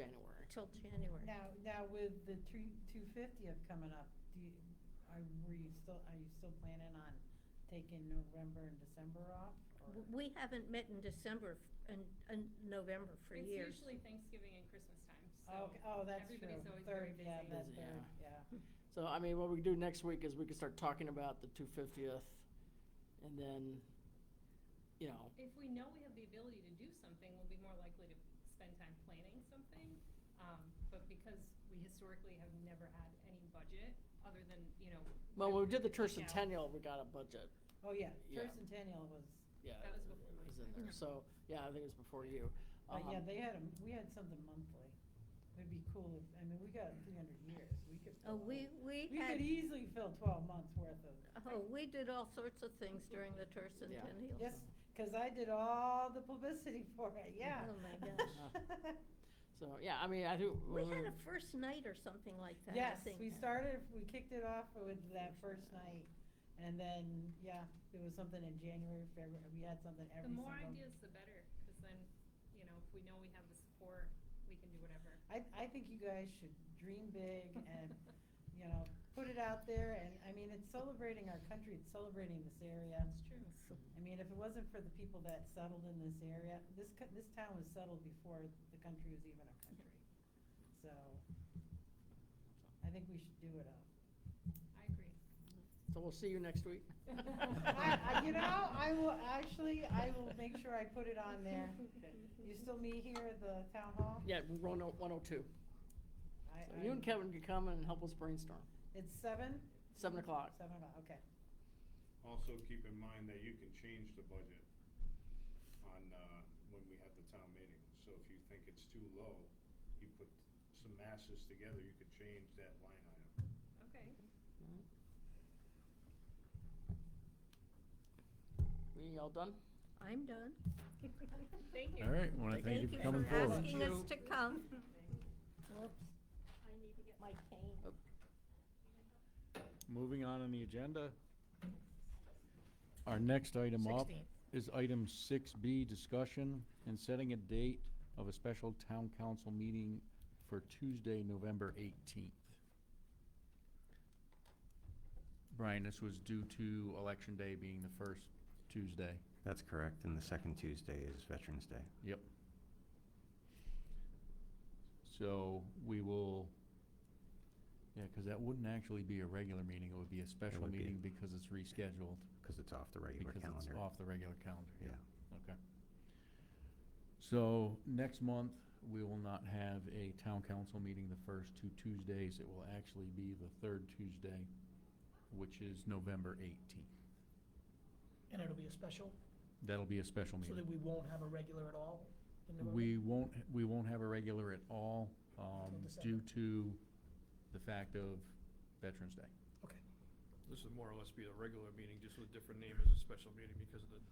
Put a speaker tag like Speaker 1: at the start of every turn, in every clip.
Speaker 1: January.
Speaker 2: till January.
Speaker 3: Now, now with the three, two fiftieth coming up, do you, are, were you still, are you still planning on taking November and December off? or-
Speaker 2: W- We haven't met in December, f- and, and November for years.
Speaker 4: It's usually Thanksgiving and Christmas time, so.
Speaker 3: Oh, oh, that's true.
Speaker 4: Everybody's always very
Speaker 3: Third, yeah,
Speaker 4: busy.
Speaker 3: that
Speaker 1: Busy,
Speaker 3: third, yeah.
Speaker 1: yeah. So, I mean, what we do next week is we can start talking about the two fiftieth, and then, you know,
Speaker 4: If we know we have the ability to do something, we'll be more likely to spend time planning something. Um, But because we historically have never had any budget, other than, you know.
Speaker 1: well, when we did the church
Speaker 4: Yeah.
Speaker 1: centennial, we got a budget,
Speaker 3: Oh, yeah,
Speaker 1: Yeah.
Speaker 3: first centennial was,
Speaker 1: yeah.
Speaker 4: That was before
Speaker 1: It was
Speaker 4: my
Speaker 1: in
Speaker 4: time.
Speaker 1: there, so, yeah, I think it was before you.
Speaker 2: Uh-huh.
Speaker 3: but yeah,
Speaker 1: Um,
Speaker 3: they had, 'em- we had something monthly. It'd be cool if, I mean, we got three hundred years, we could.
Speaker 2: Oh,
Speaker 3: fill-
Speaker 2: we, we
Speaker 3: We
Speaker 2: had,
Speaker 3: could easily fill twelve months worth of.
Speaker 2: oh, we did all sorts of things during the
Speaker 1: Yeah.
Speaker 2: tercentennial.
Speaker 3: Yes, because I did all the publicity for it, yeah.
Speaker 2: Oh, my gosh.
Speaker 1: So, yeah, I mean, I do.
Speaker 2: We had a first night or something like that, I
Speaker 3: Yes,
Speaker 2: think.
Speaker 3: we started, we kicked it off with that first night, and then, yeah, there was something in January, February, we had something every
Speaker 4: The
Speaker 3: single.
Speaker 4: more ideas, the better, because then, you know, if we know we have the support, we can do whatever.
Speaker 3: I, I think you guys should dream big and, you know, put it out there, and, I mean, it's celebrating our country, it's celebrating this area.
Speaker 4: That's true.
Speaker 3: I mean, if it wasn't for the people that settled in this area, this, co- this town was settled before the country was even a country. So, I think we should do it up.
Speaker 4: I agree.
Speaker 1: So we'll see you next week.
Speaker 3: I, I- you know, I will, actually, I will make sure I put it on there. You still meet here at the town hall?
Speaker 1: Yeah, oh, we're on 102.
Speaker 3: I-
Speaker 1: So
Speaker 3: I-
Speaker 1: You and Kevin can come and help us brainstorm.
Speaker 3: It's seven?
Speaker 1: Seven o'clock.
Speaker 3: Seven o'clock, okay.
Speaker 5: Also, keep in mind that you can change the budget on, uh, when we have the town meeting. So if you think it's too low, you put some masses together, you could change that line item.
Speaker 4: Okay.
Speaker 1: We all done?
Speaker 2: I'm done.
Speaker 4: Thank you.
Speaker 6: All right, want to thank you for coming forward.
Speaker 2: asking us to come. Whoops, I need to get my cane.
Speaker 6: Moving on in the agenda. Our next item up
Speaker 1: 16.
Speaker 6: is item 6B, discussion and setting a date of a special town council meeting for Tuesday, November 18th. Brian, this was due to Election Day being the first Tuesday.
Speaker 7: That's correct, and the second Tuesday is Veterans Day.
Speaker 6: Yep. So we will, yeah, because that wouldn't actually be a regular meeting, it would be a special
Speaker 7: would be.
Speaker 6: meeting because it's rescheduled.
Speaker 7: Because it's off the regular
Speaker 6: Because
Speaker 7: calendar.
Speaker 6: it's off the regular calendar, yeah.
Speaker 7: Yeah.
Speaker 6: Okay. So next month, we will not have a town council meeting the first two Tuesdays. It will actually be the third Tuesday, which is November 18th.
Speaker 8: And it'll be a special,
Speaker 6: That'll be a special
Speaker 8: so
Speaker 6: meeting.
Speaker 8: that we won't have a regular at all in November?
Speaker 6: We won't, we won't have a regular at all um, due to the fact of Veterans Day.
Speaker 8: Okay.
Speaker 9: This would more or less be a regular meeting, just with a different name as a special meeting because of the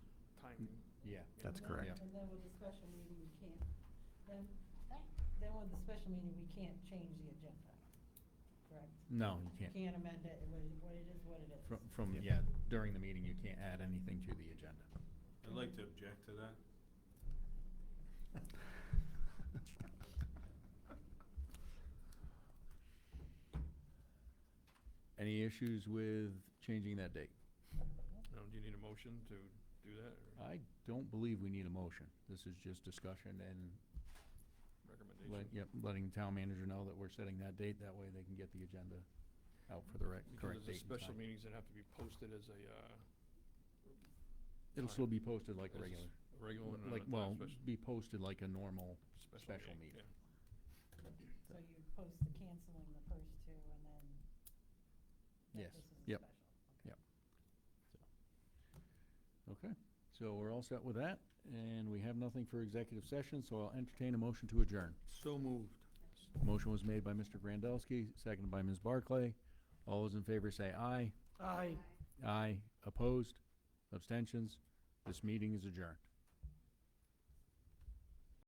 Speaker 9: timing.
Speaker 6: Yeah.
Speaker 7: That's correct.
Speaker 3: And then with the special meeting, we can't, then, then with the special meeting, we can't change the agenda, correct?
Speaker 6: No, you can't.
Speaker 3: Can't amend it, what it what it is, what it is.
Speaker 6: From, from, yeah, during the meeting, you can't add anything to the agenda.
Speaker 5: I'd like to object to that.
Speaker 6: Any issues with changing that date?
Speaker 9: Now, do you need a motion to do that or
Speaker 6: I don't believe we need a motion. This is just discussion and, let-
Speaker 9: recommendation?
Speaker 6: yep, letting the town manager know that we're setting that date. That way they can get the agenda out for the rec-
Speaker 9: Because
Speaker 6: correct
Speaker 9: there's
Speaker 6: date and
Speaker 9: special
Speaker 6: time.
Speaker 9: meetings that have to be posted as a, uh.
Speaker 6: It'll still be posted like a
Speaker 9: as
Speaker 6: regular.
Speaker 9: a Regular. and
Speaker 6: Like,
Speaker 9: not a
Speaker 6: well,
Speaker 9: special-
Speaker 6: be posted like a normal special
Speaker 9: yeah.
Speaker 6: meeting.
Speaker 3: So you post the canceling the first two and then. that
Speaker 6: Yes.
Speaker 3: this is a
Speaker 6: Yep.
Speaker 3: special. Okay.
Speaker 6: Yep. So, Okay, so we're all set with that, and we have nothing for executive session, so I'll entertain a motion to adjourn.
Speaker 9: So moved.
Speaker 6: Motion was made by Mr. Grandelsky, seconded by Ms. Barclay. All those in favor say aye.
Speaker 8: Aye.
Speaker 6: Aye. Opposed? Abstentions? This meeting is adjourned.